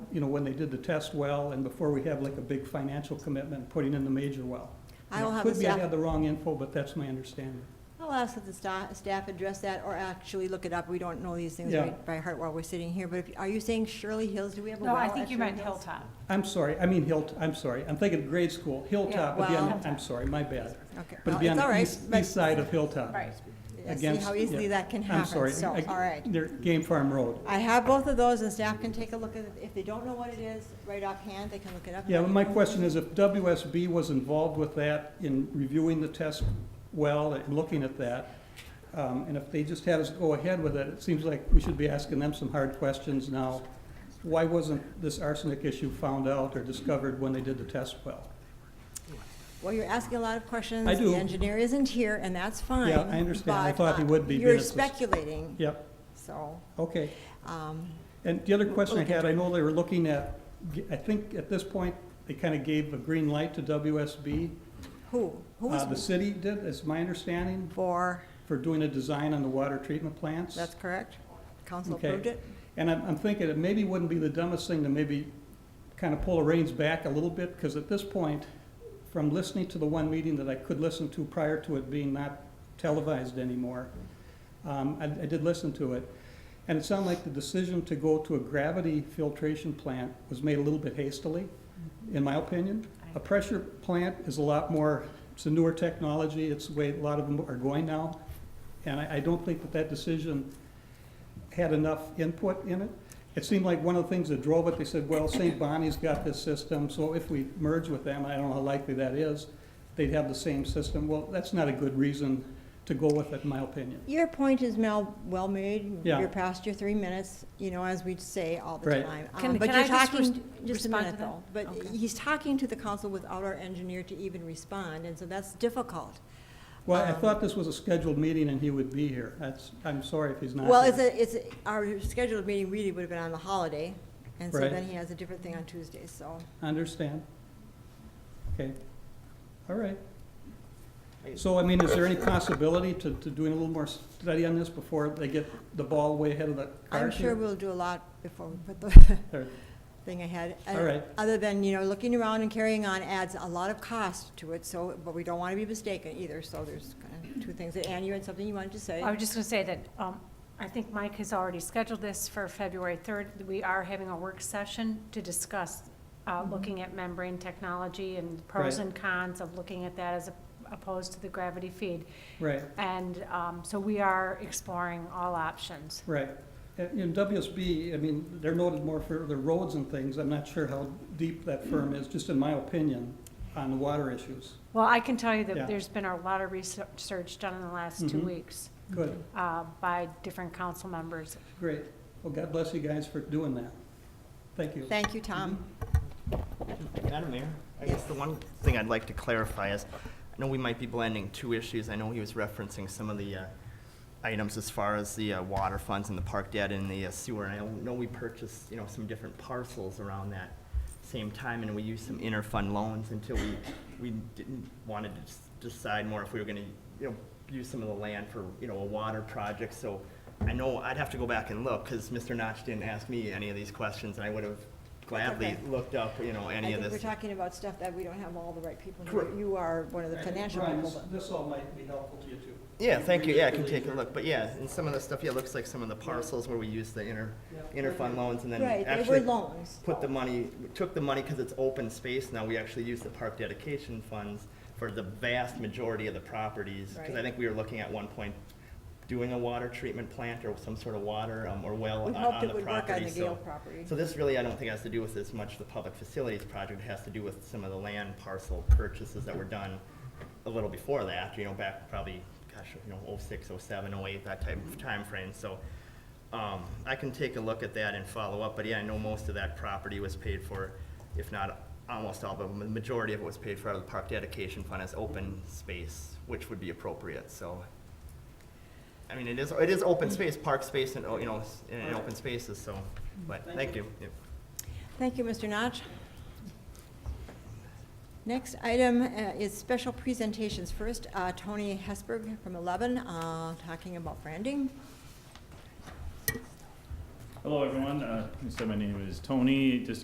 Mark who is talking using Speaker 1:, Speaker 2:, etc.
Speaker 1: you know, when they did the test well and before we have like a big financial commitment, putting in the major well.
Speaker 2: I will
Speaker 1: And it
Speaker 2: have the
Speaker 1: Could be I
Speaker 2: staff,
Speaker 1: had the wrong info, but that's my understanding.
Speaker 2: I'll ask that the sta- staff address that or actually look it up. We don't know these things
Speaker 1: Yeah.
Speaker 2: right by heart while we're sitting here, but if, are you saying Shirley Hills? Do we have a well
Speaker 3: No, I
Speaker 2: at
Speaker 3: think you
Speaker 2: Shirley
Speaker 3: meant
Speaker 2: Hills?
Speaker 3: Hilltop.
Speaker 1: I'm sorry, I mean Hilltop, I'm sorry, I'm thinking grade school, Hilltop would be on,
Speaker 2: well-
Speaker 1: I'm sorry, my bad.
Speaker 2: Okay,
Speaker 1: But
Speaker 2: well,
Speaker 1: it'd be
Speaker 2: it's
Speaker 1: on
Speaker 2: all
Speaker 1: the
Speaker 2: right,
Speaker 1: east,
Speaker 2: but
Speaker 1: east side of Hilltop.
Speaker 3: Right.
Speaker 2: yeah, see
Speaker 1: against-
Speaker 2: how easily
Speaker 1: yeah.
Speaker 2: that can
Speaker 1: I'm
Speaker 2: happen,
Speaker 1: sorry.
Speaker 2: so, all
Speaker 1: I-
Speaker 2: right.
Speaker 1: They're Game Farm Road.
Speaker 2: I have both of those, and staff can take a look at it. If they don't know what it is, right offhand, they can look it up.
Speaker 1: Yeah, but my question is if WSB was involved with that in reviewing the test well and looking at that, um, and if they just had us go ahead with it, it seems like we should be asking them some hard questions now. Why wasn't this arsenic issue found out or discovered when they did the test well?
Speaker 2: Well, you're asking a lot of questions.
Speaker 1: I do.
Speaker 2: The engineer isn't here, and that's fine.
Speaker 1: Yeah, I understand. I
Speaker 2: but,
Speaker 1: thought he
Speaker 2: uh,
Speaker 1: would be, but
Speaker 2: You're
Speaker 1: it's just-
Speaker 2: speculating,
Speaker 1: Yep,
Speaker 2: so,
Speaker 1: okay.
Speaker 2: um,
Speaker 1: And the other question I had, I know they were looking at, I think at this point, they kind of gave a green light to WSB.
Speaker 2: who? Who
Speaker 1: Uh, The
Speaker 2: was
Speaker 1: city did, is my understanding,
Speaker 2: for,
Speaker 1: for doing a design on the water treatment plants.
Speaker 2: that's correct? Council
Speaker 1: Okay.
Speaker 2: approved it?
Speaker 1: And I'm, I'm thinking it maybe wouldn't be the dumbest thing to maybe kind of pull the reins back a little bit, because at this point, from listening to the one meeting that I could listen to prior to it being not televised anymore, um, I, I did listen to it, and it sounded like the decision to go to a gravity filtration plant was made a little bit hastily,
Speaker 2: Mm-hmm.
Speaker 1: in my opinion. A pressure plant is a lot more, it's a newer technology, it's the way a lot of them are going now, and I, I don't think that that decision had enough input in it. It seemed like one of the things that drove it, they said, well, St. Bonnie's got this system, so if we merge with them, I don't know how likely that is, they'd have the same system. Well, that's not a good reason to go with it, in my opinion.
Speaker 2: Your point is, Mel, well made.
Speaker 1: Yeah.
Speaker 2: You're past your three minutes, you know, as we say all the
Speaker 1: Right.
Speaker 2: time. Um,
Speaker 3: Can-
Speaker 2: but
Speaker 3: can
Speaker 2: you're
Speaker 3: I just
Speaker 2: talking-
Speaker 3: res-
Speaker 2: Just a
Speaker 3: respond
Speaker 2: minute,
Speaker 3: to that?
Speaker 2: though. But
Speaker 3: Okay.
Speaker 2: he's talking to the council without our engineer to even respond, and so that's difficult.
Speaker 1: Well, I
Speaker 2: Um,
Speaker 1: thought this was a scheduled meeting and he would be here. That's, I'm sorry if he's not.
Speaker 2: Well,
Speaker 1: here.
Speaker 2: it's a, it's, a- our scheduled meeting really would have been on the holiday, and so
Speaker 1: Right.
Speaker 2: then he has a different thing on Tuesday, so.
Speaker 1: I Understand. Okay, all right. So, I mean, is there any possibility to, to doing a little more study on this before they get the ball way ahead of the
Speaker 2: I'm
Speaker 1: cars
Speaker 2: sure
Speaker 1: here?
Speaker 2: we'll do a lot before we put the
Speaker 1: Or-
Speaker 2: thing ahead. Uh,
Speaker 1: All right.
Speaker 2: Other than, you know, looking around and carrying on adds a lot of cost to it, so, but we don't want to be mistaken either, so there's kind of two things. Anne, you had something you wanted to say?
Speaker 3: I was just going to say that um, I think Mike has already scheduled this for February 3rd. We are having a work session to discuss uh,
Speaker 2: Mm-hmm.
Speaker 3: looking at membrane technology and pros
Speaker 1: Right.
Speaker 3: and cons of looking at that as opposed to the gravity feed.
Speaker 1: Right.
Speaker 3: And um, so we are exploring all options.
Speaker 1: Right. And in WSB, I mean, they're noted more for the roads and things. I'm not sure how deep that firm is, just in my opinion, on the water issues.
Speaker 3: Well, I can tell you
Speaker 1: Yeah.
Speaker 3: that there's been a lot of research done in the last two
Speaker 1: Mhm.
Speaker 3: weeks
Speaker 1: Good,
Speaker 3: uh, by different council members.
Speaker 1: great. Well, God bless you guys for doing that. Thank you. Mm-hmm.
Speaker 2: Thank you,
Speaker 4: Mm-hmm.
Speaker 2: Tom.
Speaker 4: Madam Mayor, I guess the one thing I'd like to clarify is, I know we might be blending two issues. I know he was referencing some of the uh, items as far as the uh, water funds and the park debt and the uh, sewer. And I know we purchased, you know, some different parcels around that same time, and we used some interfund loans until we, we didn't, wanted to s- decide more if we were gonna, you know, use some of the land for, you know, a water project. So I know I'd have to go back and look, because Mr. Notch didn't ask me any of these questions, and I would have gladly
Speaker 2: okay.
Speaker 4: looked up, you know,
Speaker 2: I
Speaker 4: any of
Speaker 2: think
Speaker 4: this.
Speaker 2: we're talking about stuff that we don't have all the right people. here.
Speaker 4: Correct.
Speaker 2: You are one of the financial
Speaker 1: Brian,
Speaker 2: people,
Speaker 1: this- This all might be helpful to you too.
Speaker 4: Yeah, thank you, yeah, I can take a look, but yeah, and some of the stuff, yeah, looks like some of the parcels where we used the inter,
Speaker 1: Yeah.
Speaker 4: interfund loans and
Speaker 2: but-
Speaker 4: then
Speaker 2: Right, they were
Speaker 4: actually
Speaker 2: loans.
Speaker 4: put the money, we took the money because it's open space now, we actually used the park dedication funds for the vast majority of the properties, because I
Speaker 2: Right.
Speaker 4: think we were looking at one point doing a water treatment plant or some sort of water, um, or well
Speaker 2: We
Speaker 4: on,
Speaker 2: hoped
Speaker 4: on
Speaker 2: it
Speaker 4: the
Speaker 2: would work on
Speaker 4: property,
Speaker 2: the
Speaker 4: so.
Speaker 2: Gale property.
Speaker 4: So this really, I don't think has to do with as much the public facilities project, it has to do with some of the land parcel purchases that were done a little before that, you know, back probably, gosh, you know, oh six, oh seven, oh eight, that type of timeframe, so. Um, I can take a look at that and follow up, but yeah, I know most of that property was paid for, if not almost all, but the majority of it was paid for out of the park dedication fund as open space, which would be appropriate, so. I mean, it is, it is open space, park space and, oh, you know, s- and and open spaces, so, but, thank you. Yep.
Speaker 2: Thank you, Mr. Notch. Next item uh, is special presentations. First, uh, Tony Hesberg from 11, uh, talking about branding.
Speaker 5: Hello, everyone. Uh, so my name is Tony. Just